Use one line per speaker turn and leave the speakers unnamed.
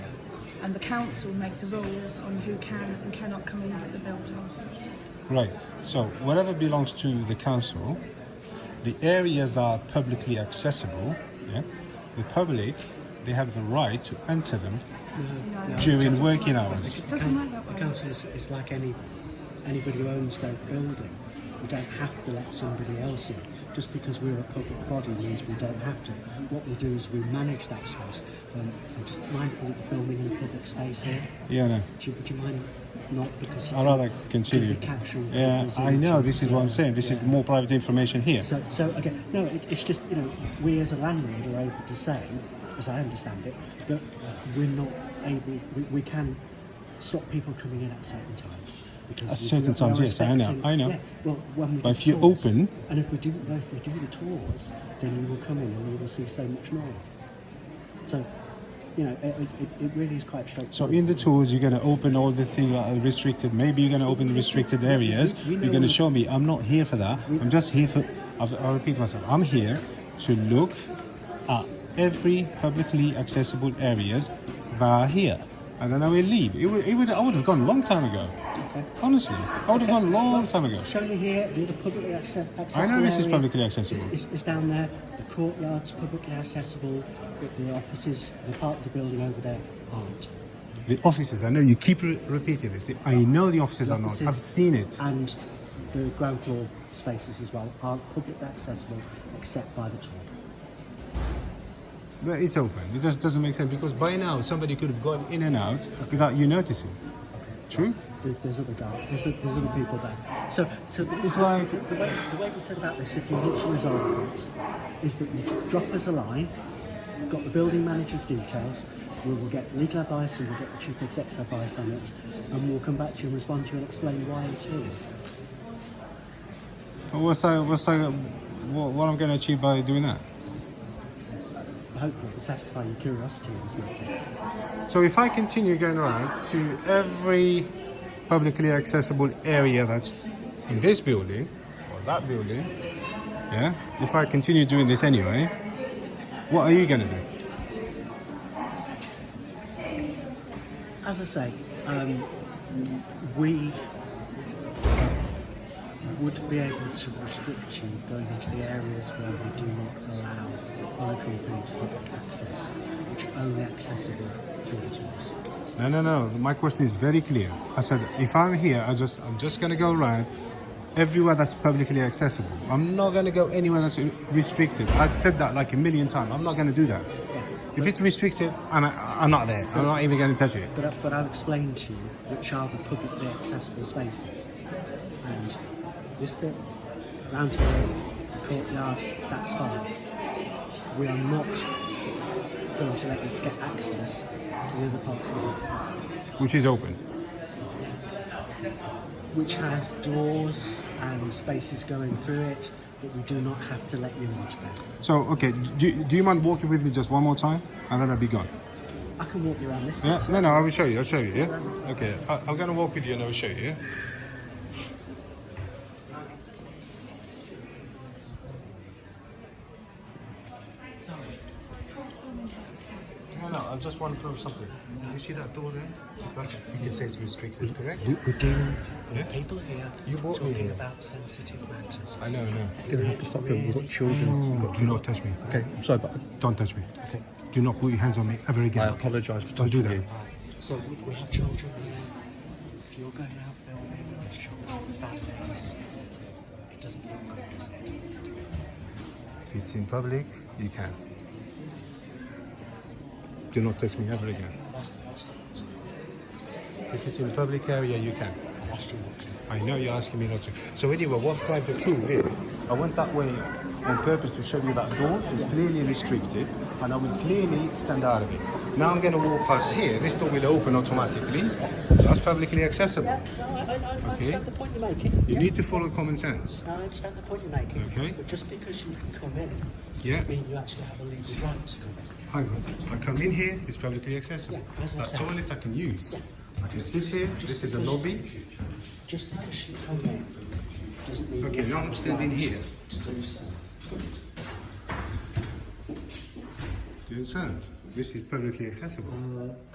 and the council make the rules on who can and cannot come into the building.
Right. So whatever belongs to the council, the areas that are publicly accessible. Yeah, the public they have the right to enter them
No,
during
doesn't
working
work.
hours.
It doesn't work that
The
way.
council is, is like any anybody who owns their building. We don't have to let somebody else in. Just because we're a public body means we don't have to. What we do is we manage that space. Um, I'm just mindful that we're filming in a public space here.
Yeah. No.
Do you, would you mind not because you
I'd rather continue.
could be capturing
Yeah,
people's
I know. This
emotions.
is what I'm
Yeah,
saying. This is
yeah.
more private information here.
So, so again, no, it, it's just you know we as a landlord are able to say, as I understand it, that uh, we're not able, we, we can stop people coming in at certain times. Because
At
we-
certain
we are
times, yes, I know,
respecting-
I know.
Yeah, well, when we
But
do
if you
tours,
open-
and if we do, no, if we do the tours, then you will come in and you will see so much more. So, you know, it, it, it really is quite straightforward.
So in the tools, you're going to open all the things that are restricted. Maybe you're going to open the restricted areas.
we know
You're going to
what-
show me. I'm not here for that. I'm just here for. I've, I'll repeat myself. I'm here to look at every publicly accessible areas that are here, and then I will leave. It would. It would I would have gone a long time ago.
Okay.
Honestly, I would have gone a long time ago.
Show me here, the other publicly acce- accessible.
this is
area.
publicly accessible.
It's, it's, it's down there. The courtyard's publicly accessible, but the offices, the part of the building over there, aren't.
The offices. I know you keep re- repeating this. I know the offices are not.
Offices
I've seen it.
And the ground floor spaces as well aren't publicly accessible except by the tour.
But it's open. It just doesn't make sense because by now somebody could have gone in and out without you noticing. True?
There's, there's other guys. There's, o- there's other people there. So, so it's
like-
the, the way the way we said about this. If you want to resolve it, is that you drop us a line. We've got the building manager's details. We will get legal advice and we'll get the chief exec's advice on it, and we'll come back to you and respond to you and explain why it is.
But What's I, what's I, what, what I'm going to achieve by doing that?
Hopefully, it will satisfy your curiosity in this matter.
So if I continue going around to every publicly accessible area that's in this building or that building, yeah, if I continue doing this anyway, what are you going to do?
As I say, um, we would be able to restrict you going into the areas where we do not allow unaccompanied public access, which are only accessible to the tourists.
No, no, no. My question is very clear. I said, if I'm here, I just, I'm just gonna go around everywhere that's publicly accessible. I'm not gonna go anywhere that's restricted. I've said that like a million times. I'm not gonna do that. If it's restricted, I'm, I'm not there. I'm not even gonna touch it.
But, I- but I'll explain to you which are the publicly accessible spaces. And this bit, round here, the courtyard, that's fine. We are not going to let you to get access to the other parts of the building,
Which is open.
which has doors and spaces going through it, but we do not have to let you into it.
So, okay. Do, do you mind walking with me just one more time, and then I'll be gone?
I can walk you around this.
Yeah.
place.
No, no. I will show you. I'll show you. Yeah. Okay. I, I'm gonna walk with you, and I will show you. Yeah? No, no, I just want to prove something. You see that door there? That's, you can say it's restricted, correct?
We- We're dealing with
Yeah.
people here
You brought me
talking
here.
about sensitive matters.
I know, I know.
You're going to have to stop them. We've got
children.
do not touch me.
Okay, I'm sorry, but
Don't touch me.
Okay.
Do not put your hands on me ever
I
again.
apologise for
Don't do
touching
that.
you.
So we, we have children here. If you're going out filming with children with families, it doesn't look good, does it?
If it's in public, you can. Do not touch me ever again. If it's in public area, you can. I know you're asking me not to. So anyway, what I'm trying to prove is, I went that way on purpose to show you that door is clearly restricted, and I will clearly stand out of it. Now I'm going to walk past here. This door will open automatically. That's publicly accessible.
No, I, I, I
understand
understand
the
the point you're making.
You need to follow common sense.
I understand the point you're making.
Okay.
But just because you can come in,
Yeah.
doesn't mean you actually have a legal right to come in.
Hang on. I come in here, it's publicly accessible.
Yeah, that's what
that
I'm saying.
toilet I can use. I can sit here, this is a lobby.
Just because you come in, doesn't mean
Okay,
you
now
have
I'm
the
standing
right
here.
To do so.
Do you understand? This is publicly accessible.